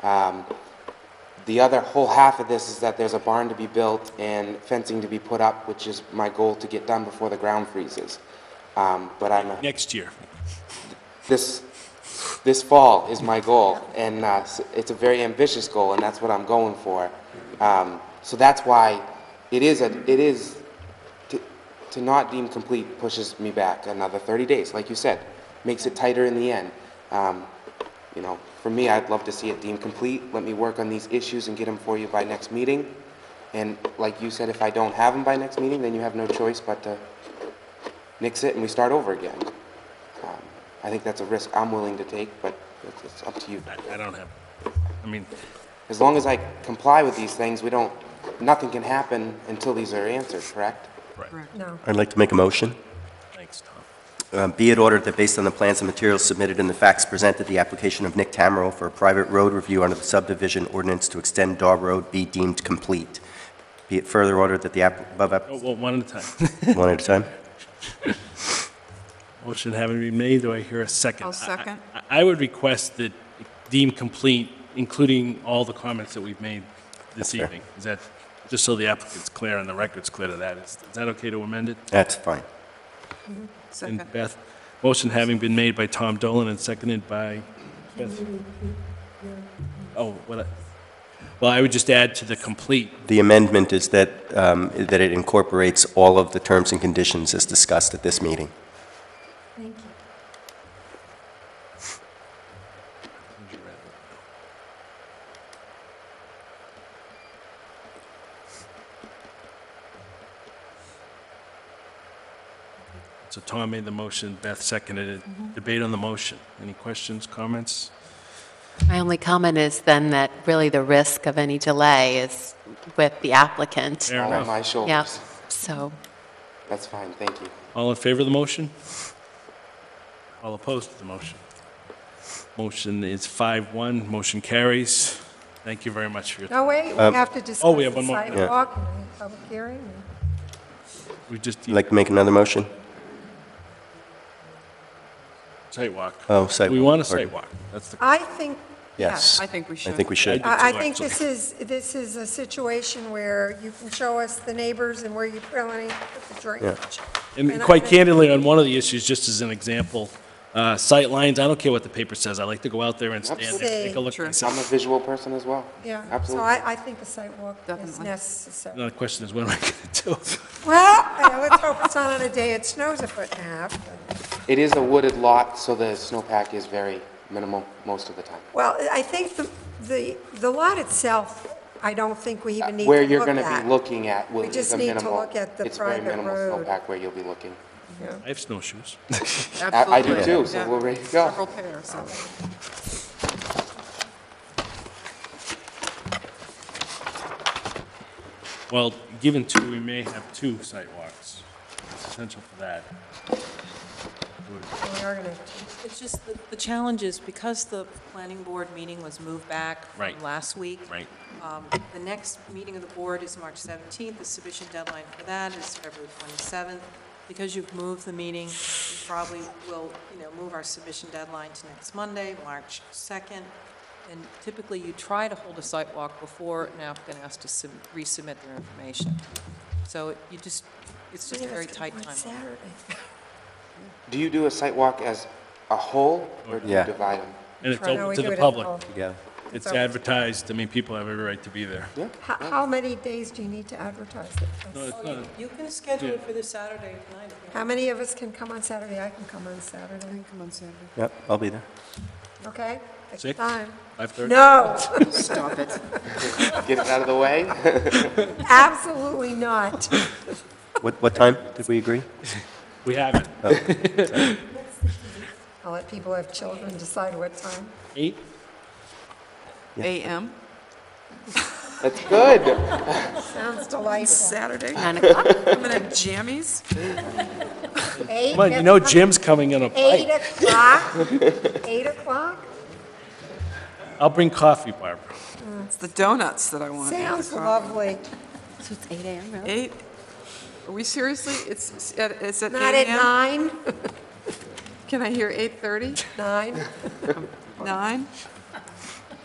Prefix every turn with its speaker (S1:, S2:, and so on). S1: Um, The other whole half of this is that there's a barn to be built and fencing to be put up, which is my goal to get done before the ground freezes. Um, But I'm, a-
S2: Next year.
S1: this, this fall is my goal, and uh, s- it's a very ambitious goal, and that's what I'm going for. Um, So that's why it is, a it is, to- to not deem complete pushes me back another 30 days, like you said, makes it tighter in the end. Um, You know, for me, I'd love to see it deemed complete, let me work on these issues and get them for you by next meeting. And like you said, if I don't have them by next meeting, then you have no choice but to nix it and we start over again. Um, I think that's a risk I'm willing to take, but it's- it's up to you.
S2: I, I don't have, I mean,
S1: As long as I comply with these things, we don't, nothing can happen until these are answered, correct?
S2: right,
S3: No.
S4: I'd like to make a motion.
S2: thanks, Tom.
S4: Uh, Be it ordered that based on the plans and materials submitted and the facts presented, the application of Nick Tamero for a private road review under the subdivision ordinance to extend Daw Road be deemed complete. Be it further ordered that the app, above, app-
S2: Oh, well, one at a time.
S4: one at a time?
S2: Motion having been made, do I hear a 2nd
S3: I'll second.
S2: I I would request that deem complete, including all the comments that we've made this
S4: fair.
S2: evening. Is that, just so the applicant's clear and the record's clear to that, is is that okay to amend it?
S4: That's fine.
S3: Second.
S2: And Beth, motion having been made by Tom Dolan and seconded by Beth. Oh, what, I- well, I would just add to the complete,
S4: The amendment is that, um, that it incorporates all of the terms and conditions as discussed at this meeting.
S2: so Tom made the motion, Beth seconded it. Debate on the motion. Any questions, comments?
S5: My only comment is then that really the risk of any delay is with the applicant.
S2: Fair
S1: All on
S2: enough.
S1: my shoulders.
S5: Yep, so,
S1: That's fine, thank you.
S2: All in favor of the motion? All opposed to the motion? Motion is 5-1, motion carries. Thank you very much for your,
S3: No, wait, we
S1: Um,
S3: have to discuss
S2: oh, we have
S3: the
S2: one more. Yeah.
S3: sidewalk and the public hearing.
S2: we just,
S4: You'd like to make another motion?
S2: sidewalk.
S4: Oh, sidewalk.
S2: We want a
S4: pardon.
S2: sidewalk. That's the,
S3: I think,
S4: Yes.
S6: I think we
S4: I
S6: should.
S4: think we should.
S3: I I think this is, this is a situation where you can show us the neighbors and where you really put the drainage.
S2: and
S3: and I
S2: quite
S3: think-
S2: candidly, on one of the issues, just as an example, uh, sight lines, I don't care what the paper says, I like to go out there and stand there, take a look
S6: Sure.
S2: myself.
S1: I'm a visual person as well.
S3: Yeah, so
S1: Absolutely.
S3: I, I think a sidewalk is
S6: Definitely.
S3: necessary.
S2: Another question is, what am I going to do?
S3: Well, I- let's hope it's not on a day it snows a foot and a half.
S1: It is a wooded lot, so the snowpack is very minimal most of the time.
S3: Well, I think the, the, the lot itself, I don't think we even need to look
S1: Where
S3: at.
S1: you're going to be looking at will
S3: We
S1: is
S3: just
S1: a
S3: need to
S1: minimal-
S3: look at the private
S1: It's very minimal
S3: road.
S1: snowpack where you'll be looking.
S2: I have snowshoes.
S1: I- I do
S6: Absolutely.
S1: too, so
S6: Yeah.
S1: we're ready to go.
S6: Several pairs, so.
S2: Well, given two, we may have two sidewalks. It's essential for that.
S3: We are gonna-
S7: It's just, the- the challenge is, because the planning board meeting was moved back
S2: Right.
S7: from last week.
S2: Right.
S7: um, The next meeting of the board is March 17th, the submission deadline for that is February 27th. Because you've moved the meeting, we probably will, you know, move our submission deadline to next Monday, March 2nd. And typically, you try to hold a site walk before an applicant has to sub- resubmit their information. So you just, it's just a very tight
S3: On
S7: timeline.
S3: Saturday.
S1: Do you do a site walk as a whole, or do you
S4: Yeah.
S1: divide them?
S2: And it's
S3: Oh, no,
S2: open
S3: we
S2: to
S3: do it
S2: the
S3: at
S2: public.
S3: home.
S4: Yeah.
S2: It's
S3: open.
S2: advertised, I mean, people have every right to be there.
S3: How, how many days do you need to advertise it?
S2: It's not-
S7: You can schedule it for the Saturday night if you
S3: How many of us can come on Saturday? I can come on Saturday,
S6: Come on, Saturday.
S4: Yep, I'll be there.
S3: okay? Pick
S2: Six?
S3: time.
S2: 5:30?
S3: No,
S6: Stop it.
S1: Get it out of the way?
S3: absolutely not.
S4: What, what time did we agree? Oh.
S2: We haven't.
S3: I'll let people have children decide what time.
S2: Eight?
S6: AM?
S1: That's good.
S3: Sounds delightful.
S6: Saturday?
S5: 9 o'clock?
S6: I'm in jammies?
S3: Eight
S2: Come on, you know
S3: o'clock-
S2: Jim's coming in a
S3: Eight
S2: pipe.
S3: o'clock, eight o'clock?
S2: I'll bring coffee, Barbara.
S6: It's the donuts that I want. not the
S3: Sounds
S6: coffee.
S3: lovely.
S5: So it's 8 AM, really?
S6: Eight? Are we seriously? It's, it's at it's at
S3: Not
S6: 8
S3: at
S6: a.m.?
S3: nine?
S6: Can I hear 8:30?
S3: Nine?
S6: 9?